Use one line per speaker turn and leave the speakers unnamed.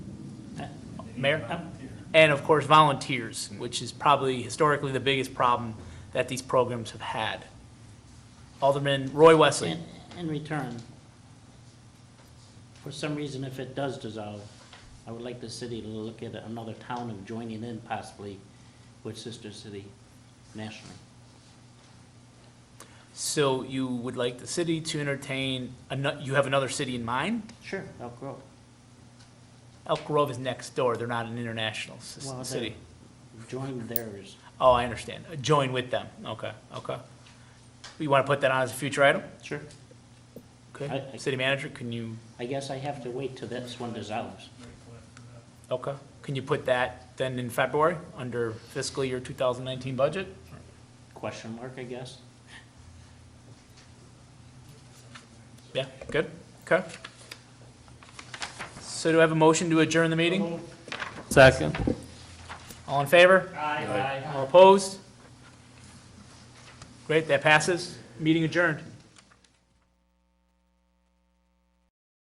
Mayor? And of course, volunteers, which is probably historically the biggest problem that these programs have had. Alderman Roy Wesley.
In, in return, for some reason, if it does dissolve, I would like the city to look at another town of joining in possibly with Sister City nationally.
So you would like the city to entertain, ano- you have another city in mind?
Sure, Elk Grove.
Elk Grove is next door, they're not an international s-
Well, they-
city.
Join theirs.
Oh, I understand, join with them, okay, okay. You want to put that on as a future item?
Sure.
Okay,
I- I-
city manager, can you,
I guess I have to wait till this one dissolves.
okay, can you put that then in February, under fiscal year 2019 budget?
Question mark, I guess.
Yeah, good, okay. So do I have a motion to adjourn the meeting?
Second.
All in favor? Aye. All opposed? Great, that passes, meeting adjourned.